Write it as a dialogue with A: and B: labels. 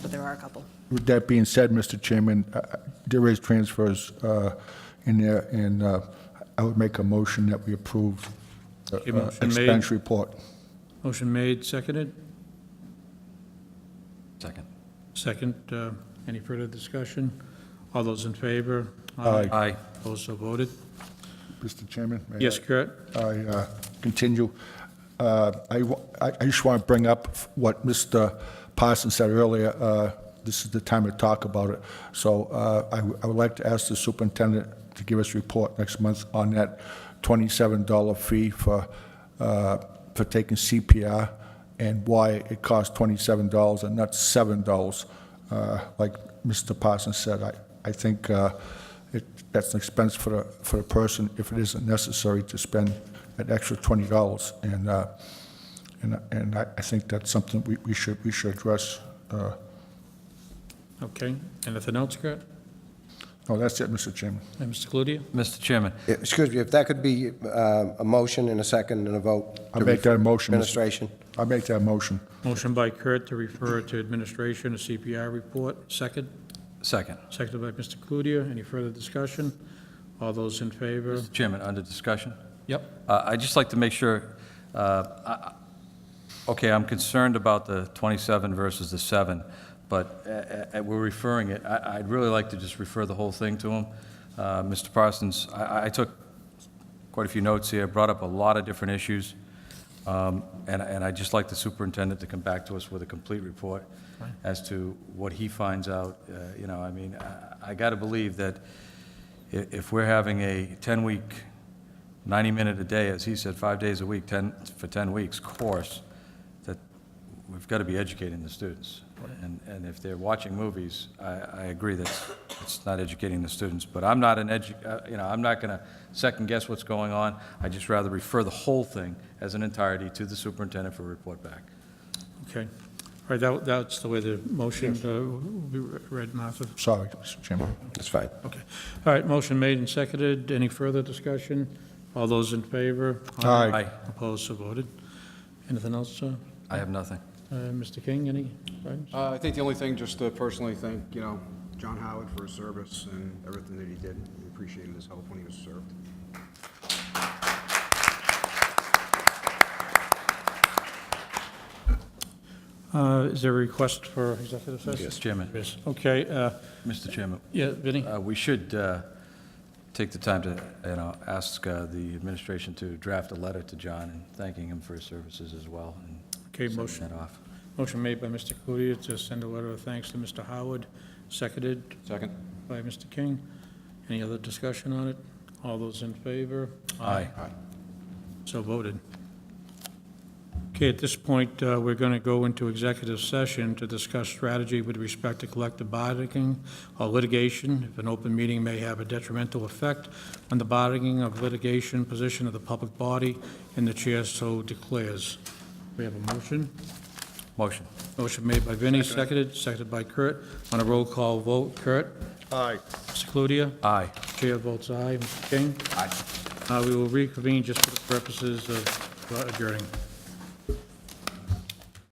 A: but there are a couple.
B: With that being said, Mr. Chairman, uh, uh, there is transfers uh, in there, and uh, I would make a motion that we approve the
C: Okay,
B: uh,
C: motion made.
B: expense report.
C: Motion made, seconded.
D: Second.
C: Second, uh, any further discussion? All those in favor?
B: Aye.
D: Aye.
C: Opposed, so voted.
B: Mr. Chairman? may I-
C: Yes, Kurt?
B: I uh, continue. Uh, I wa- I- I just want to bring up what Mr. Parsons said earlier. Uh, This is the time to talk about it. So uh, I w- I would like to ask the superintendent to give us a report next month on that $27 fee for uh, for taking CPR and why it costs $27 and not $7. Uh, Like Mr. Parsons said, I I think uh, it, that's an expense for the, for the person if it isn't necessary to spend an extra twenty dollars. And, uh, and, and I, I think that's something we, we should, we should address. Uh,
C: Okay, anything else, Kurt?
B: no, that's it, Mr. Chairman.
C: And Mr. Cludier?
D: Mr. Chairman,
E: Excuse me, if that could be uh, a motion and a second and a vote. to
B: I'll make that a motion. Mr.
E: Administration.
B: I'll make that motion.
C: Motion by Kurt to refer to administration, a CPI report, second.
D: second.
C: Seconded by Mr. Cludier. Any further discussion? All those in favor?
D: Mr. Chairman, under discussion.
C: Yep.
D: Uh, I'd just like to make sure, uh, I- I- okay, I'm concerned about the 27 versus the 7, but uh, uh, we're referring it, I- I'd really like to just refer the whole thing to him. Uh, Mr. Parsons, I- I I took quite a few notes here, brought up a lot of different issues, um, and and I'd just like the superintendent to come back to us with a complete report as to what he finds out, Uh, you know, I mean, I- I got to believe that i- if we're having a 10-week 90-minute a day, as he said, five days a week, 10, for 10 weeks course, that we've got to be educating the students. And, and if they're watching movies, I, I agree that it's not educating the students. But I'm not an edu, uh, you know, I'm not going to second-guess what's going on. I'd just rather refer the whole thing as an entirety to the superintendent for report back.
C: Okay. All right, that, that's the way the motion uh, will be read, Martha.
B: Sorry, Mr. Chairman.
E: That's fine.
C: Okay. All right, motion made and seconded. Any further discussion? All those in favor?
B: Aye.
D: Aye.
C: Opposed, so voted. Anything else, uh,
D: I have nothing.
C: uh, Mr. King, any? items?
F: Uh, I think the only thing, just to personally thank, you know, John Howard for his service and everything that he did. We appreciated his help when he was served.
C: Uh, Is there a request for executive session?
D: Mr. Chairman,
C: Yes. Okay, uh,
D: Mr. Chairman,
C: yeah, Vinnie?
D: uh, we should uh, take the time to, you know, ask uh, the administration to draft a letter to John and thanking him for his services as well. and
C: Okay,
D: sending
C: motion.
D: that off.
C: Motion made by Mr. Cludier to send a letter of thanks to Mr. Howard, seconded
F: Second.
C: by Mr. King. Any other discussion on it? All those in favor?
D: Aye.
C: So voted. Okay, at this point, uh, we're going to go into executive session to discuss strategy with respect to collective bargaining or litigation. If an open meeting may have a detrimental effect on the bargaining of litigation position of the public body, and the chair so declares. We have a motion.
D: Motion.
C: Motion made by Vinnie, seconded, seconded by Kurt. On a roll call vote, Kurt?
B: Aye.
C: Mr. Cludier?
D: Aye.
C: Chair votes aye. Mr. King?
D: Aye.
C: Uh, We will reconvene just for the purposes of uh, adjourning.